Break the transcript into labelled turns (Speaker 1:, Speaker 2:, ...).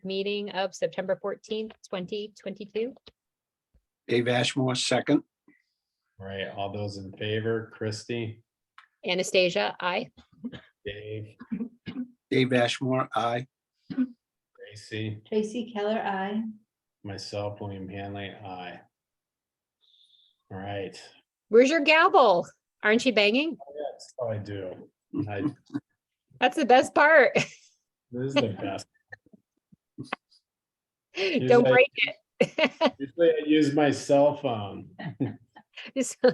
Speaker 1: meeting of September fourteenth, twenty twenty-two.
Speaker 2: Dave Ashmore, second.
Speaker 3: All right, all those in favor, Christie,
Speaker 1: Anastasia, I.
Speaker 3: Dave,
Speaker 2: Dave Ashmore, aye.
Speaker 3: Gracie,
Speaker 4: Tracy Keller, I.
Speaker 3: myself, William Hanley, aye. All right,
Speaker 1: Where's your gavel? Aren't you banging?
Speaker 3: that's all I do. I,
Speaker 1: That's the best part.
Speaker 3: this is the best.
Speaker 1: Don't
Speaker 3: like-
Speaker 1: break it.
Speaker 3: Usually I use my cell phone.
Speaker 1: Just-